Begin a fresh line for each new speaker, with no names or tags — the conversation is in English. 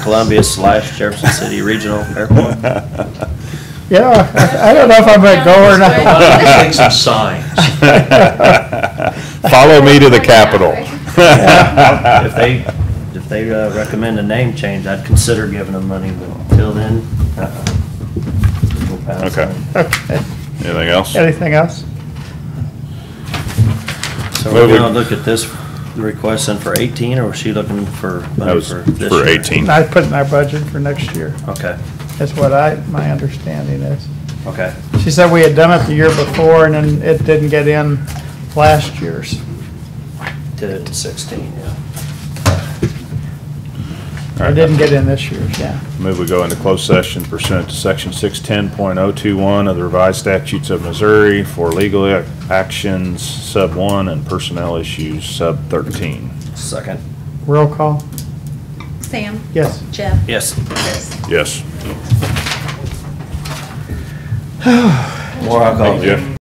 Columbia slash Jefferson City Regional Airport.
Yeah, I- I don't know if I'm gonna go or
Why
not.
don't we
take some signs?
Follow me to the Capitol.
If they, if they uh, recommend a name change, I'd consider giving them money, but until then, uh-uh. We'll pass
Okay.
on
Okay.
Anything else?
Anything else?
it. So we're
Moving.
gonna look at this request then for eighteen, or was she looking for
That
money
was
for this
for
year?
18.
I put in our budget for next year,
Okay,
That's what I, my understanding is.
okay.
She said we had done it the year before and then it didn't get in last year's.
Did it to sixteen, yeah.
It didn't get in this year's, yeah.
Move we go into closed session pursuant to section 610.021 of the revised statutes of Missouri for legal ac- actions, sub 1, and personnel issues, sub 13.
Second,
Roll call,
Sam?
yes.
Jeff?
yes.
Chris?
Yes.
More alcohol.
Thank you, Jeff.